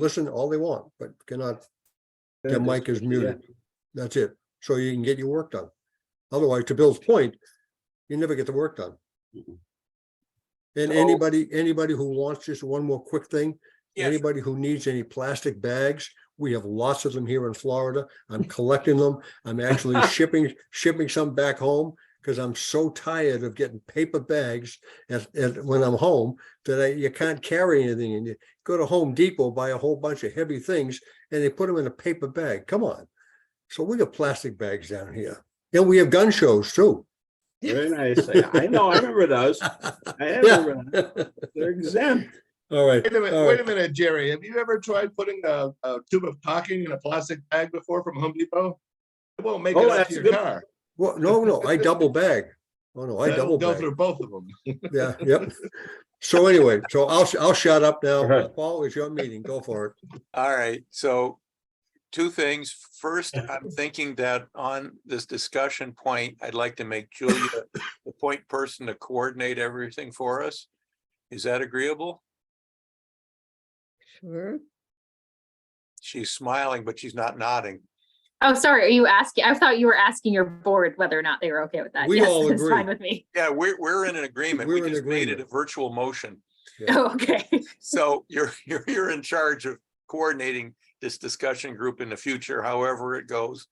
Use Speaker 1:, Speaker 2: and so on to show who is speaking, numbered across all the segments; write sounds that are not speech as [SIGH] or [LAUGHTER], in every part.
Speaker 1: listen all they want, but cannot,
Speaker 2: There
Speaker 1: their
Speaker 2: it is.
Speaker 1: mic is muted. That's it. So you can get your work done. Otherwise, to Bill's point, you never get the work done.
Speaker 3: Mhm.
Speaker 1: And
Speaker 3: So-
Speaker 1: anybody, anybody who wants just one more quick thing,
Speaker 3: Yes,
Speaker 1: anybody who needs any plastic bags, we have lots of them here in Florida. I'm collecting them. I'm
Speaker 3: [LAUGHS]
Speaker 1: actually shipping, shipping some back home because I'm so tired of getting paper bags at, at, when I'm home that I, you can't carry anything and you go to Home Depot, buy a whole bunch of heavy things and they put them in a paper bag. Come on. So we got plastic bags down here and we have gun shows too. [LAUGHS]
Speaker 3: very nice. I know, I remember those. I remember, those. they're exempt.
Speaker 1: All right.
Speaker 4: Wait a minute,
Speaker 1: all
Speaker 4: wait
Speaker 1: right.
Speaker 4: a minute, Jerry. Have you ever tried putting a, a tube of caulking in a plastic bag before from Home Depot? It won't make
Speaker 3: Oh,
Speaker 4: it up
Speaker 3: that's
Speaker 4: to
Speaker 3: a
Speaker 4: your
Speaker 3: good-
Speaker 4: car.
Speaker 1: Well, no, no, I double bag. Oh, no, I double
Speaker 4: That'll go
Speaker 1: bag.
Speaker 4: through both of them.
Speaker 1: Yeah, yep. So anyway, so I'll, I'll shut up now.
Speaker 3: Okay.
Speaker 1: Paul, it's your meeting. Go for it.
Speaker 5: All right, so two things. First, I'm thinking that on this discussion point, I'd like to make Julia the point person to coordinate everything for us. Is that agreeable?
Speaker 6: Sure.
Speaker 5: She's smiling, but she's not nodding.
Speaker 7: Oh, sorry, are you asking? I thought you were asking your board whether or not they were okay with that.
Speaker 1: We
Speaker 7: Yes,
Speaker 1: all
Speaker 7: [LAUGHS] It's
Speaker 1: agree.
Speaker 7: fine with me.
Speaker 5: Yeah, we're, we're in an agreement.
Speaker 1: We're in
Speaker 5: We just made it a
Speaker 1: agreement.
Speaker 5: virtual motion.
Speaker 1: Yeah.
Speaker 7: Oh, okay.
Speaker 5: So you're, [LAUGHS] you're, you're in charge of coordinating this discussion group in the future, however it goes.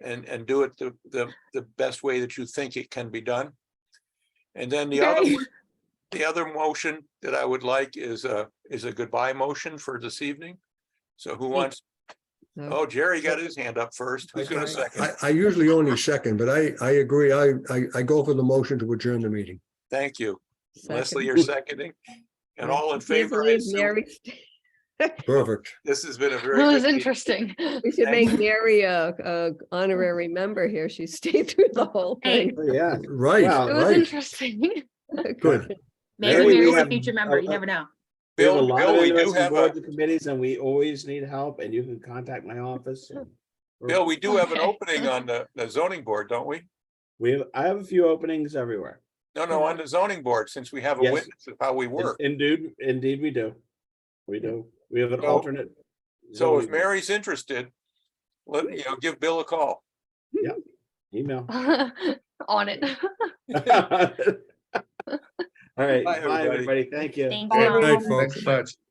Speaker 5: And, and do it the, the, the best way that you think it can be done. And then the other,
Speaker 7: Okay.
Speaker 5: one- the other motion that I would like is a, is a goodbye motion for this evening. So who wants?
Speaker 6: No.
Speaker 5: Oh, Jerry got his hand up first. Who's gonna second?
Speaker 1: I, I usually only second, but I, I agree. I, I, I go for the motion to adjourn the meeting.
Speaker 5: Thank you. Leslie,
Speaker 6: Second.
Speaker 5: you're
Speaker 6: [LAUGHS]
Speaker 5: seconding. And all in
Speaker 6: I can't
Speaker 5: favor, I
Speaker 6: believe
Speaker 5: assume
Speaker 6: Mary- [LAUGHS]
Speaker 1: Perfect.
Speaker 5: this has been a very.
Speaker 8: [LAUGHS] That was
Speaker 5: good meeting.
Speaker 8: interesting.
Speaker 6: We should
Speaker 5: Thank
Speaker 6: make Mary a, a honorary member here. She stayed through the whole
Speaker 7: Hey.
Speaker 6: thing.
Speaker 3: Oh, Yeah.
Speaker 1: Right,
Speaker 3: Wow.
Speaker 8: It was
Speaker 1: right.
Speaker 8: interesting.
Speaker 1: Good.
Speaker 7: Maybe
Speaker 3: Mary, we
Speaker 7: Mary's a
Speaker 3: have-
Speaker 7: future member. You
Speaker 3: uh,
Speaker 7: never know.
Speaker 3: We have a
Speaker 5: Bill,
Speaker 3: lot of
Speaker 5: Bill, we do
Speaker 3: interesting
Speaker 5: have a,
Speaker 3: boards and committees and we always need help and you can contact my office. and-
Speaker 5: Bill, we do have an
Speaker 8: Okay.
Speaker 5: opening on the, the zoning board, don't we?
Speaker 3: We have, I have a few openings everywhere.
Speaker 5: No, no, on the zoning board, since we have a
Speaker 3: Yes.
Speaker 5: witness of how we work.
Speaker 3: Indeed, indeed we do. We do. We have an
Speaker 5: So-
Speaker 3: alternate.
Speaker 5: So if
Speaker 3: zoning
Speaker 5: Mary's interested, let, you know, give Bill a call.
Speaker 3: Email.
Speaker 8: On
Speaker 3: [LAUGHS]
Speaker 5: [LAUGHS]
Speaker 8: it.
Speaker 3: All right.
Speaker 5: Bye,
Speaker 3: Bye,
Speaker 5: everybody.
Speaker 3: everybody. Thank you.
Speaker 7: Thank
Speaker 1: Good
Speaker 7: you.
Speaker 1: night, folks.
Speaker 4: Thanks much.